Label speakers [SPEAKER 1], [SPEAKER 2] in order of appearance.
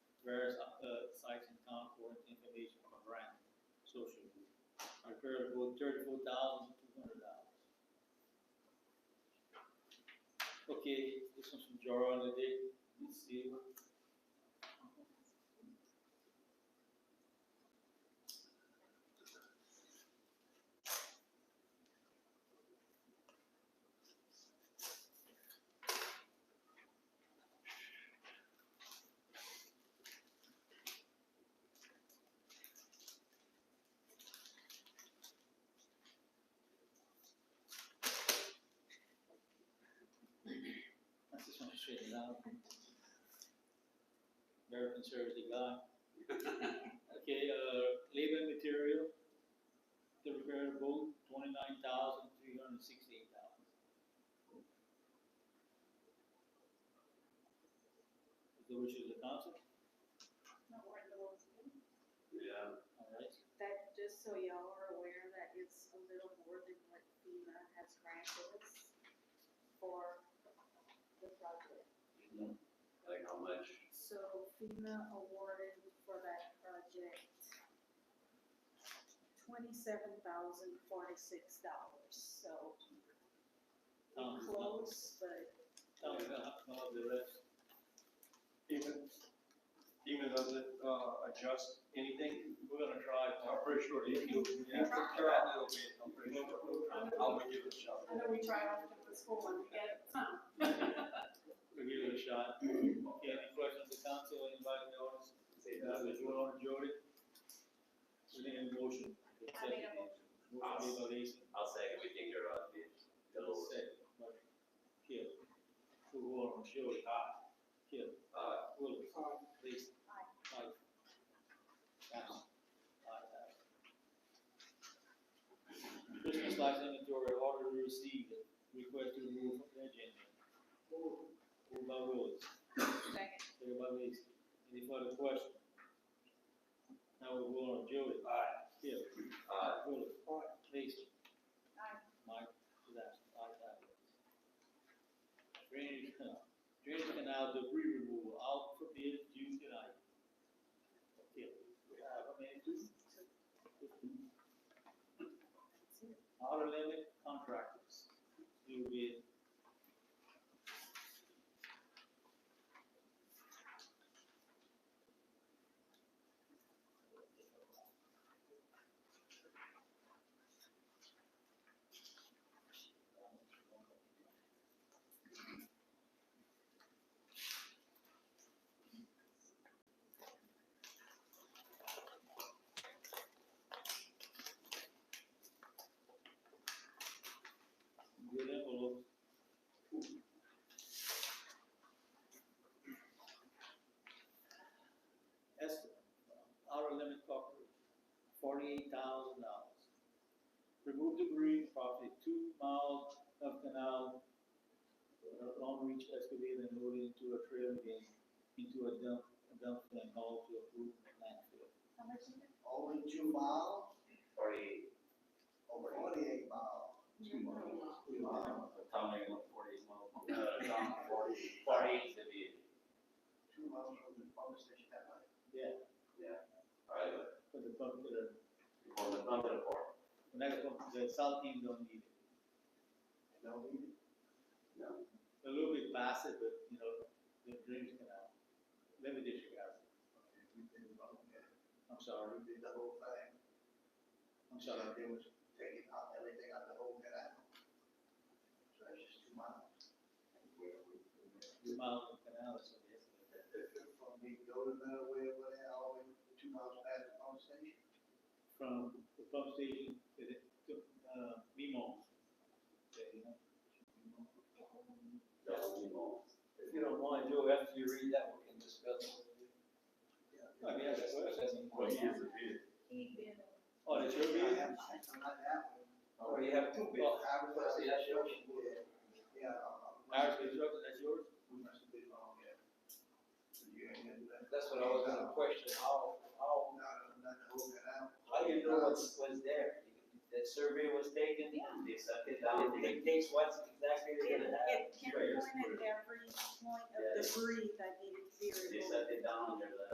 [SPEAKER 1] thirty-four thousand two hundred dollars. Okay, this one's from Jara on the day, let's see. I just wanna straighten it out. Very conservative guy. Okay, uh, labor and material, the repair boom, twenty-nine thousand, three hundred and sixty-eight dollars. The wishes of the council,
[SPEAKER 2] Not worth the loan to them.
[SPEAKER 3] Yeah,
[SPEAKER 1] all right,
[SPEAKER 2] That, just so y'all are aware, that is a little more than what FEMA has granted us for the project.
[SPEAKER 3] like how much?
[SPEAKER 2] So FEMA awarded for that project twenty-seven thousand forty-six dollars, so
[SPEAKER 1] Um,
[SPEAKER 2] we're close, but
[SPEAKER 1] tell me about about the rest.
[SPEAKER 4] Even, even does it, uh, adjust anything?
[SPEAKER 1] We're gonna try,
[SPEAKER 4] I'm pretty sure you can, you have to try a little bit, I'm pretty sure. I'm gonna give it a shot.
[SPEAKER 2] I know we tried off to the school one, we had a ton.
[SPEAKER 1] we'll give it a shot. Okay, any questions of the council, anybody in the audience?
[SPEAKER 3] Say
[SPEAKER 1] Uh, the Joel and Jody. We need a motion.
[SPEAKER 2] I made a motion.
[SPEAKER 1] Motion made by Lisa.
[SPEAKER 3] I'll second, we think you're on the, the lower.
[SPEAKER 1] Second by Kip. Who on, Jody, aye. Kip,
[SPEAKER 3] Uh,
[SPEAKER 1] Willis.
[SPEAKER 2] Aye.
[SPEAKER 1] Lisa.
[SPEAKER 2] Aye.
[SPEAKER 1] Mike. Aye. Aye, aye. Christmas lights inventory order received, request to remove from the agenda. Moved by Willis.
[SPEAKER 2] Second.
[SPEAKER 1] Second by Lacy. Any further questions? Now we go on, Jody.
[SPEAKER 4] Aye.
[SPEAKER 1] Kip.
[SPEAKER 3] uh,
[SPEAKER 1] Willis. Lacy.
[SPEAKER 2] Aye.
[SPEAKER 1] Mike, that, like that. Drainage canal, drainage canal debris removal, out for bid due tonight. Okay, we have a man, just. Outer limit contractors, due bid. Good envelope. Estimate, outer limit coverage, forty-eight thousand dollars. Remove debris property two miles of canal, uh, long reach excavator and load it into a trailer again, into a dump, a dump and haul to a group landfill.
[SPEAKER 2] How much is it?
[SPEAKER 5] Only two miles,
[SPEAKER 3] forty,
[SPEAKER 5] over forty-eight miles. Two miles,
[SPEAKER 3] Tom, they want forty, uh, Tom,
[SPEAKER 5] forty,
[SPEAKER 3] forty to be,
[SPEAKER 5] two miles from the pump station that way.
[SPEAKER 1] Yeah,
[SPEAKER 3] alright,
[SPEAKER 1] for the pump, for the,
[SPEAKER 3] on the number four.
[SPEAKER 1] the next pump, the south end don't need it.
[SPEAKER 5] No, we,
[SPEAKER 1] a little bit passive, but you know, the dreams can happen. Let me just ask.
[SPEAKER 5] okay, we did about that.
[SPEAKER 1] I'm sorry.
[SPEAKER 5] We did the whole thing.
[SPEAKER 1] I'm
[SPEAKER 5] So
[SPEAKER 1] sorry.
[SPEAKER 5] they was taking out everything out the whole canal. So that's just two miles.
[SPEAKER 1] Your mouth and canal is so yes.
[SPEAKER 5] From the golden that way over there, all the way two miles past the pump station.
[SPEAKER 1] From the pump station to the, to, uh, Mimo. There you go.
[SPEAKER 3] Double Nemo.
[SPEAKER 4] If you don't mind, Joe, after you read that, we can discuss it.
[SPEAKER 1] Oh, yeah, that's what it says.
[SPEAKER 3] What years of bid?
[SPEAKER 2] He bid
[SPEAKER 1] Oh, that's your
[SPEAKER 5] I
[SPEAKER 1] view?
[SPEAKER 5] have, I have that one.
[SPEAKER 4] Oh, you have two bids.
[SPEAKER 5] Well, I was gonna say, that's yours. Yeah.
[SPEAKER 1] Irish construction, that's yours?
[SPEAKER 5] We must have been wrong, yeah. So you ain't gonna do that.
[SPEAKER 4] That's what I was gonna question, how, how,
[SPEAKER 5] No, no, not the whole canal.
[SPEAKER 4] how you know what's, what's there? That survey was taken, they sucked it down, it dictates what's exactly they're
[SPEAKER 2] It
[SPEAKER 4] gonna have.
[SPEAKER 2] it pinpointed every point of
[SPEAKER 3] Yeah.
[SPEAKER 2] debris that needed to be
[SPEAKER 3] They
[SPEAKER 2] removed.
[SPEAKER 3] set it down, there's a